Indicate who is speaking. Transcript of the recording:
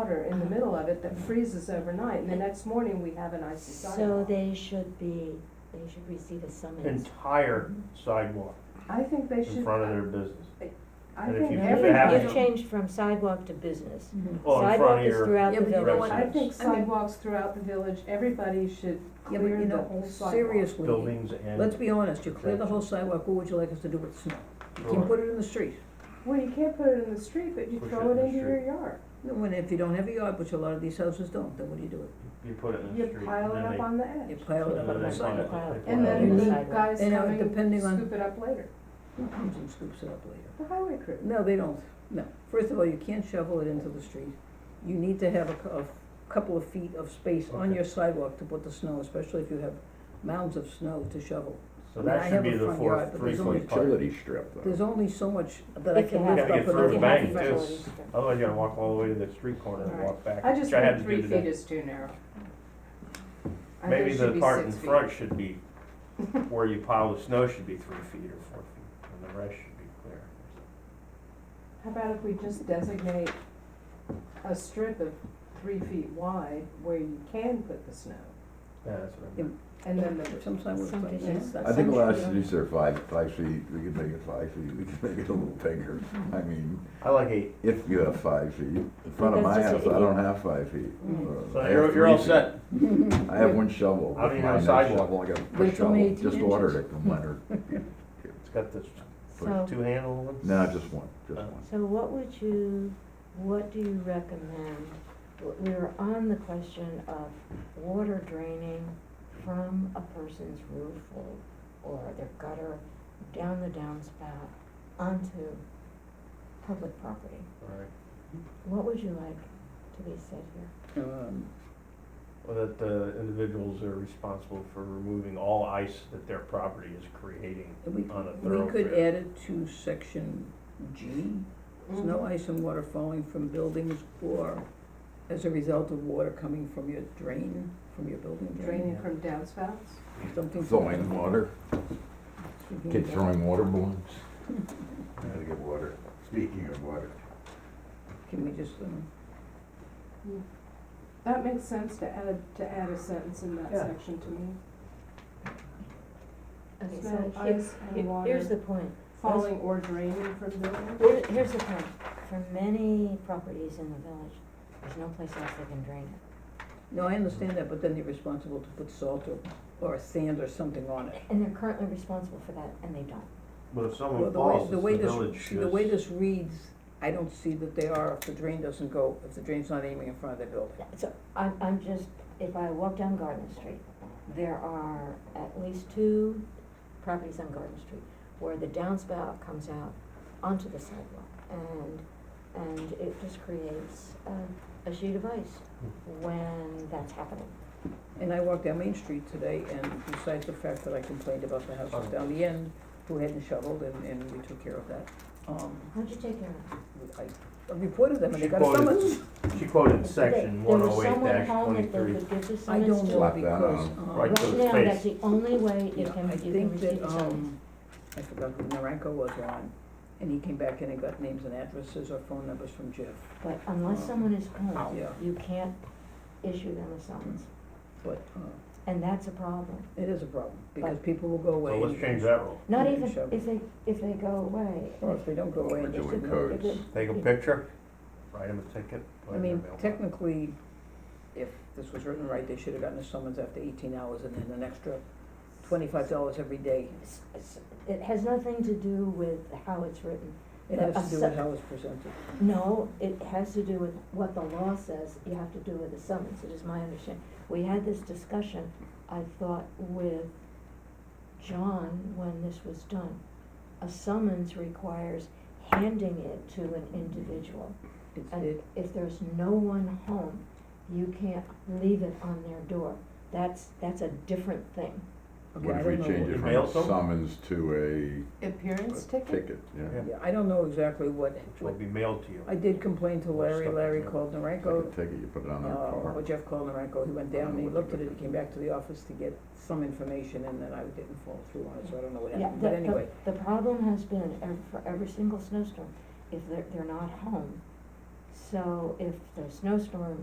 Speaker 1: water in the middle of it that freezes overnight, and the next morning we have an icy
Speaker 2: So
Speaker 1: sidewalk.
Speaker 2: they should be, they should receive a summons.
Speaker 3: entire sidewalk
Speaker 1: I think they
Speaker 3: in
Speaker 1: should,
Speaker 3: front of their business.
Speaker 1: I
Speaker 3: and if
Speaker 1: think
Speaker 3: you
Speaker 2: No,
Speaker 3: have
Speaker 1: every,
Speaker 3: it
Speaker 2: You've
Speaker 3: happen-
Speaker 2: you've changed from sidewalk to business.
Speaker 4: Mm-hmm.
Speaker 3: Well, in front of
Speaker 2: Sidewalk is
Speaker 3: your,
Speaker 2: throughout
Speaker 4: Yeah,
Speaker 2: the
Speaker 4: but you know
Speaker 2: village.
Speaker 4: what?
Speaker 1: I think
Speaker 4: I mean-
Speaker 1: sidewalks throughout the village, everybody should
Speaker 4: Yeah, but
Speaker 1: clear
Speaker 4: you
Speaker 1: the
Speaker 4: know,
Speaker 1: whole sidewalk.
Speaker 4: seriously,
Speaker 3: buildings
Speaker 4: let's
Speaker 3: and,
Speaker 4: be honest, you clear the whole sidewalk, what would you like us to do with the snow? You can
Speaker 3: Sure.
Speaker 4: put it in the street,
Speaker 1: Well, you can't put it in the street, but you
Speaker 3: Push
Speaker 1: throw
Speaker 3: it in
Speaker 1: it
Speaker 3: the
Speaker 1: into your
Speaker 3: street.
Speaker 1: yard.
Speaker 4: No, and if you don't have a yard, which a lot of these houses don't, then what do you do with
Speaker 3: you put it in the
Speaker 1: You
Speaker 3: street.
Speaker 1: pile it
Speaker 3: and then
Speaker 1: up
Speaker 3: they-
Speaker 1: on the
Speaker 4: it? You
Speaker 1: edge.
Speaker 4: pile it up
Speaker 3: So they
Speaker 4: on the
Speaker 3: find
Speaker 4: sidewalk.
Speaker 3: it, they
Speaker 2: Yeah,
Speaker 1: And
Speaker 3: pile it
Speaker 1: then
Speaker 3: up.
Speaker 2: the
Speaker 1: the
Speaker 2: sidewalk.
Speaker 1: guys
Speaker 4: And, uh,
Speaker 1: come and
Speaker 4: depending on-
Speaker 1: scoop it up later,
Speaker 4: Who comes and scoops it up later?
Speaker 1: the highway crew.
Speaker 4: No, they don't, no. First of all, you can't shovel it into the street. You need to have a, cou- a couple of feet of space on
Speaker 3: Okay.
Speaker 4: your sidewalk to put the snow, especially if you have mounds of snow to shovel.
Speaker 3: So
Speaker 4: I mean, I
Speaker 3: that should
Speaker 4: have
Speaker 3: be
Speaker 4: a
Speaker 3: the
Speaker 4: front yard,
Speaker 3: fourth,
Speaker 4: but
Speaker 3: three
Speaker 4: there's
Speaker 5: It's a
Speaker 4: only
Speaker 3: foot part.
Speaker 5: utility strip though.
Speaker 4: There's only so much that I
Speaker 2: If you
Speaker 4: can
Speaker 2: have-
Speaker 4: lift
Speaker 3: Gotta
Speaker 4: up
Speaker 3: get
Speaker 4: and
Speaker 3: through
Speaker 4: I
Speaker 3: the
Speaker 4: can
Speaker 3: bank,
Speaker 4: have-
Speaker 3: too. Otherwise you gotta walk all the way to the street corner and walk back,
Speaker 1: I just
Speaker 3: which I had
Speaker 1: think
Speaker 3: to
Speaker 1: three
Speaker 3: do
Speaker 1: feet
Speaker 3: today.
Speaker 1: is too narrow. I think
Speaker 3: Maybe
Speaker 1: it should
Speaker 3: the
Speaker 1: be
Speaker 3: part in
Speaker 1: six feet.
Speaker 3: front should be, where you pile the snow should be three feet or four feet, and the rest should be clear.
Speaker 1: How about if we just designate a strip of three feet wide where you can put the snow?
Speaker 3: Yeah, that's what I
Speaker 4: Yeah.
Speaker 3: meant.
Speaker 1: And then the,
Speaker 4: Sometimes it's
Speaker 2: Some
Speaker 4: like
Speaker 2: dishes.
Speaker 4: that.
Speaker 5: I think a
Speaker 4: Some
Speaker 5: lot of
Speaker 4: should-
Speaker 5: cities are five, five feet, we could make it five feet, we could make it a little bigger. I mean,
Speaker 3: I like eight.
Speaker 5: if you have five feet, in front of
Speaker 2: That's
Speaker 5: my
Speaker 2: just
Speaker 5: house,
Speaker 2: a-
Speaker 5: I don't have five feet.
Speaker 4: Mm.
Speaker 5: Uh, I
Speaker 3: So
Speaker 5: have
Speaker 3: you're, you're
Speaker 5: three
Speaker 3: all
Speaker 5: feet.
Speaker 3: set.
Speaker 5: I have one shovel.
Speaker 3: I don't even
Speaker 5: My
Speaker 3: have a
Speaker 5: next
Speaker 3: sidewalk.
Speaker 5: shovel, I got
Speaker 4: Wait till
Speaker 5: a shovel,
Speaker 4: 18
Speaker 5: just
Speaker 4: inches.
Speaker 5: ordered it from Leonard.
Speaker 3: It's got this
Speaker 2: So,
Speaker 3: two handle one.
Speaker 5: No, just one, just
Speaker 3: Uh.
Speaker 5: one.
Speaker 2: so what would you, what do you recommend? W- We were on the question of water draining from a person's roof or, or their gutter down the downspout onto public property.
Speaker 3: All right.
Speaker 2: What would you like to be said here?
Speaker 4: Um,
Speaker 3: Well, that the individuals are responsible for removing all ice that their property is creating
Speaker 4: We,
Speaker 3: on a
Speaker 4: we
Speaker 3: thoroughfare.
Speaker 4: could add it to section G, snow,
Speaker 1: Mhm.
Speaker 4: ice and water falling from buildings or as a result of water coming from your drain, from your building drain.
Speaker 1: draining from downspouts?
Speaker 4: Something.
Speaker 5: Throwing water,
Speaker 4: Speaking
Speaker 5: kids
Speaker 4: of-
Speaker 5: throwing water balloons. Gotta get water, speaking of water.
Speaker 4: Can we just, um,
Speaker 1: That makes sense to add, to add a sentence in that
Speaker 3: Yeah.
Speaker 1: section to me.
Speaker 2: Okay,
Speaker 1: Snow,
Speaker 2: so
Speaker 1: ice,
Speaker 2: here-
Speaker 1: and
Speaker 2: here-
Speaker 1: water.
Speaker 2: here's the point.
Speaker 1: Falling or draining from buildings?
Speaker 2: Here- Here's the point, for many properties in the village, there's no place else they can drain it.
Speaker 4: no, I understand that, but then you're responsible to put salt or, or sand or something on it.
Speaker 2: And they're currently responsible for that, and they don't.
Speaker 3: But if
Speaker 4: Well,
Speaker 3: someone
Speaker 4: the way-
Speaker 3: falls,
Speaker 4: the
Speaker 3: it's
Speaker 4: way
Speaker 3: the
Speaker 4: this-
Speaker 3: village
Speaker 4: see, The way
Speaker 3: that's-
Speaker 4: this reads, I don't see that they are, if the drain doesn't go, if the drain's not aiming in front of the building.
Speaker 2: So I'm, I'm just, if I walk down Garden Street, there are at least two properties on Garden Street where the downspout comes out onto the sidewalk and, and it just creates a, a sheet of ice when that's happening.
Speaker 4: And I walked down Main Street today, and besides the fact that I complained about the
Speaker 3: Oh.
Speaker 4: houses down the end, who hadn't shoveled, and, and we took care of that, um,
Speaker 2: How'd you take care of it?
Speaker 4: I I reported them, and they
Speaker 3: She
Speaker 4: got a
Speaker 3: quoted,
Speaker 4: summons.
Speaker 3: she quoted section one oh eight
Speaker 2: There was someone
Speaker 3: dash
Speaker 2: home that they
Speaker 3: twenty-three.
Speaker 2: could give the
Speaker 4: I
Speaker 2: summons
Speaker 4: don't
Speaker 2: to.
Speaker 4: know,
Speaker 5: Slap that
Speaker 4: because,
Speaker 5: on.
Speaker 4: um,
Speaker 3: Right.
Speaker 2: Right
Speaker 3: to the
Speaker 2: now,
Speaker 3: face.
Speaker 2: that's the only way you
Speaker 4: yeah,
Speaker 2: can,
Speaker 4: I
Speaker 2: you can
Speaker 4: think
Speaker 2: receive
Speaker 4: that,
Speaker 2: a summons.
Speaker 4: um, I forgot who Naranko was on, and he came back in and got names and addresses or phone numbers from Jeff,
Speaker 2: But unless someone is home,
Speaker 4: uh, oh, yeah,
Speaker 2: you can't issue them a summons,
Speaker 4: but, uh,
Speaker 2: and that's a problem.
Speaker 4: it is a problem, because people will go away.
Speaker 3: So let's
Speaker 4: and-
Speaker 3: change that rule.
Speaker 2: Not
Speaker 4: Yeah,
Speaker 2: even
Speaker 4: sure.
Speaker 2: if they, if they go away.
Speaker 4: Or if they don't go away.
Speaker 5: We're
Speaker 4: and
Speaker 2: They
Speaker 5: doing
Speaker 2: should-
Speaker 4: just-
Speaker 5: codes.
Speaker 2: they-
Speaker 3: Take a picture, write them a ticket. put it
Speaker 4: I
Speaker 3: in their
Speaker 4: mean,
Speaker 3: mailbox.
Speaker 4: technically, if this was written right, they should have gotten a summons after eighteen hours and then an extra twenty-five dollars every day.
Speaker 2: s- s- It has nothing to do with how it's written.
Speaker 4: It has to do with how it's presented.
Speaker 2: No, it has to do with what the law says you have to do with a summons, it is my understanding. We had this discussion, I thought, with John when this was done. A summons requires handing it to an individual.
Speaker 4: It's,
Speaker 2: And
Speaker 4: it,
Speaker 2: if there's no one home, you can't leave it on their door. That's, that's a different thing.
Speaker 4: okay,
Speaker 5: What
Speaker 4: I
Speaker 5: if we
Speaker 4: don't know.
Speaker 5: change
Speaker 3: You
Speaker 5: it from
Speaker 3: mail
Speaker 5: a
Speaker 3: some?
Speaker 5: summons to a
Speaker 1: Appearance
Speaker 5: a
Speaker 1: ticket?
Speaker 5: ticket, yeah?
Speaker 3: Yeah.
Speaker 4: Yeah, I don't know exactly what,
Speaker 3: Which will
Speaker 4: what,
Speaker 3: be mailed to you.
Speaker 4: I did complain to Larry,
Speaker 3: Stuff.
Speaker 4: Larry called
Speaker 5: It's like a
Speaker 4: Narenko,
Speaker 5: ticket, you put it
Speaker 4: uh,
Speaker 5: on their car.
Speaker 4: or Jeff called Narenko, he went
Speaker 5: I don't
Speaker 4: down,
Speaker 5: know
Speaker 4: he
Speaker 5: what to
Speaker 4: looked at
Speaker 5: do.
Speaker 4: it, he came back to the office to get some information, and then I didn't follow through on it, so I don't know what
Speaker 2: Yeah,
Speaker 4: happened,
Speaker 2: the,
Speaker 4: but anyway.
Speaker 2: the, the problem has been ev- for every single snowstorm, if they're, they're not home, So if the snowstorm